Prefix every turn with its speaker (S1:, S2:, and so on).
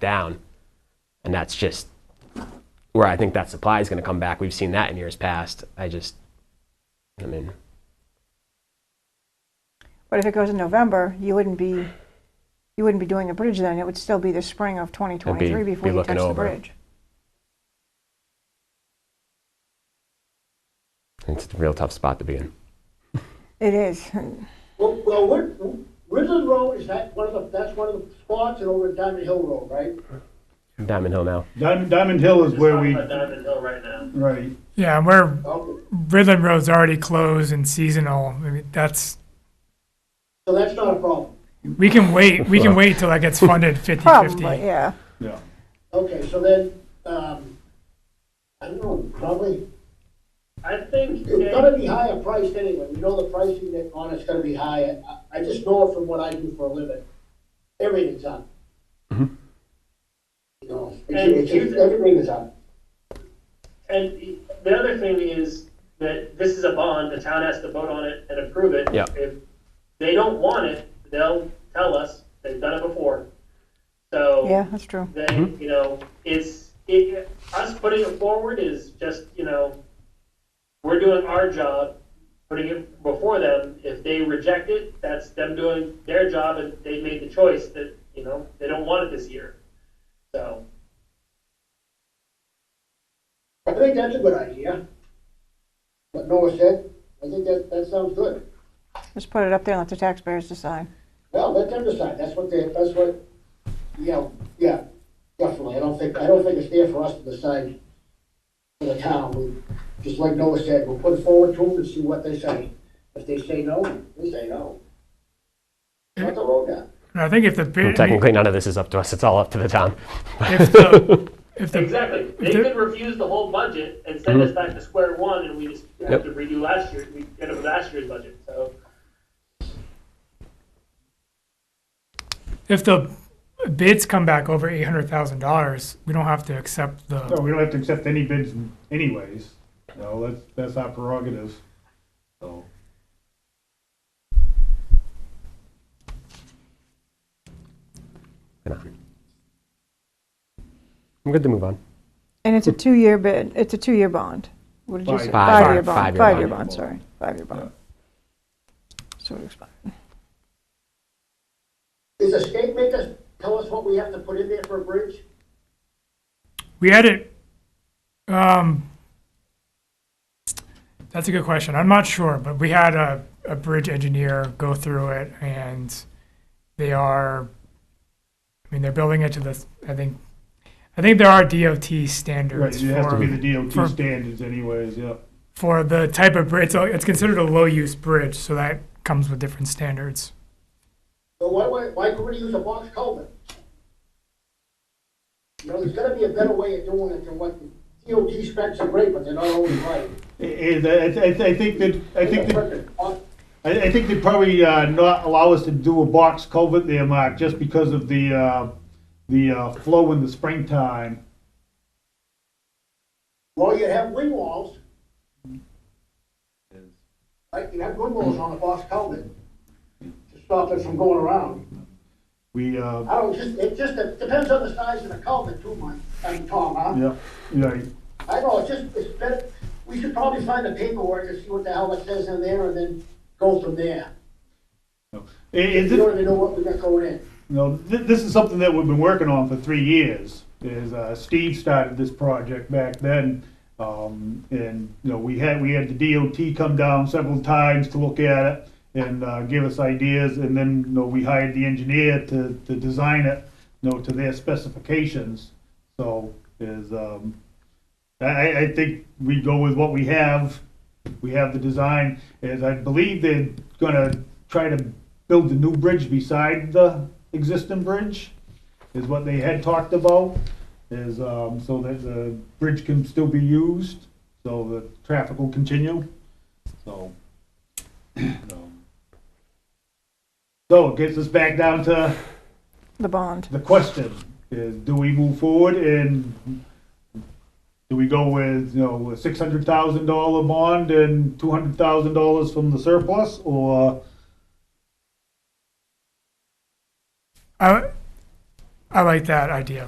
S1: down. And that's just where I think that supply is going to come back. We've seen that in years past. I just, I mean,
S2: But if it goes in November, you wouldn't be, you wouldn't be doing the bridge then. It would still be the spring of 2023
S1: be
S2: before you
S1: looking
S2: touch the
S1: over.
S2: bridge.
S1: it's a real tough spot to be in.
S2: It is.
S3: Well, well, Wiz- Wizard Road is that one of the, that's one of the spots and over at Diamond Hill Road, right?
S1: Diamond Hill now.
S4: Diamond, Diamond Hill is where we,
S3: Diamond Hill right now.
S4: right,
S5: Yeah, and where
S3: Okay,
S5: Ridland Road's already closed and seasonal, I mean, that's,
S3: so that's not a problem.
S5: we can wait, we can wait till that gets funded fifty-fifty.
S2: Probably, yeah.
S4: yeah.
S3: Okay, so then, um, I don't know, probably,
S6: I think
S3: it's gonna be higher priced anyway. You know the pricing that on it's gonna be higher. I, I just know it from what I do for a living. Everything's up. You know, it's, it's, everything is up.
S6: And the other thing is that this is a bond, the town has to vote on it and approve it.
S1: Yeah.
S6: If they don't want it, they'll tell us, they've done it before. So
S2: Yeah, that's true.
S6: then, you know, it's, it, us putting it forward is just, you know, we're doing our job, putting it before them. If they reject it, that's them doing their job and they made the choice that, you know, they don't want it this year. So.
S3: I think that's a good idea. What Noah said, I think that, that sounds good.
S2: Just put it up there and let the taxpayers decide.
S3: Well, let them decide, that's what they, that's what, yeah, yeah, definitely, I don't think, I don't think it's there for us to decide for the town, we, just like Noah said, we'll put it forward to them and see what they say. If they say no, we say no. Shut the road down.
S5: And I think if the, bid- I mean,
S1: Technically, none of this is up to us. It's all up to the town.
S5: if the, if the,
S6: Exactly. They
S5: There-
S6: could refuse the whole budget and send us back to square one, and we just
S1: Yep.
S6: have to redo last year, we get it with last year's budget, so.
S5: if the bids come back over eight hundred thousand dollars, we don't have to accept
S4: No,
S5: the,
S4: we don't have to accept any bids anyways. No, that's, that's our prerogative. So,
S1: I'm good to move on.
S2: And it's a two-year bid, it's a two-year bond. What did you say?
S1: Five. Five.
S2: Five-year
S4: Five.
S2: bond,
S1: Five-year
S2: five-year
S4: bond.
S2: bond, sorry, five-year
S4: Yeah.
S2: bond. So it expires.
S3: Does the state make us, tell us what we have to put in there for a bridge?
S5: we had it, um, that's a good question, I'm not sure, but we had a, a bridge engineer go through it and they are, I mean, they're building it to the, I think, I think there are DOT
S4: right,
S5: standards
S4: it has to
S5: for-
S4: be the
S5: for-
S4: DOT standards anyways, yeah.
S5: for the type of bridge. So it's considered a low use bridge, so that comes with different standards.
S3: So why, why, why couldn't we use a box culvert? You know, there's gotta be a better way of doing it than what the DOT specs are great, but they're not always right.
S4: I- I, I, I think that, I think that,
S3: that.
S4: I, I think they probably, uh, not allow us to do a box culvert there, Mark, just because of the, uh, the, uh, flow in the springtime.
S3: Well, you have wing walls. Right, you have wing walls on the box culvert to stop it from going around.
S4: We, uh,
S3: I don't, just, it just it depends on the size of the culvert too, Mike, I mean, Tom, huh?
S4: yeah, right,
S3: I know, it's just, it's better, we should probably find the paperwork and see what the hell it says in there and then go from there.
S4: Is
S3: You
S4: it,
S3: don't even know what we got going in.
S4: No, th- this is something that we've been working on for three years. Is uh, Steve started this project back then, um, and you know we had we had the DOT come down several times to look at it and uh, give us ideas, and then you know we hired the engineer to, to design it, you know, to their specifications. So is um, I- I, I think we go with what we have. We have the design, as I believe they're gonna try to build the new bridge beside the existing bridge, is what they had talked about, is, um, so that the bridge can still be used, so the traffic will continue, so. um, So it gets us back down to
S2: The bond.
S4: the question is, do we move forward and do we go with, you know, a six hundred thousand dollar bond and two hundred thousand dollars from the surplus, or
S5: I, I like that idea.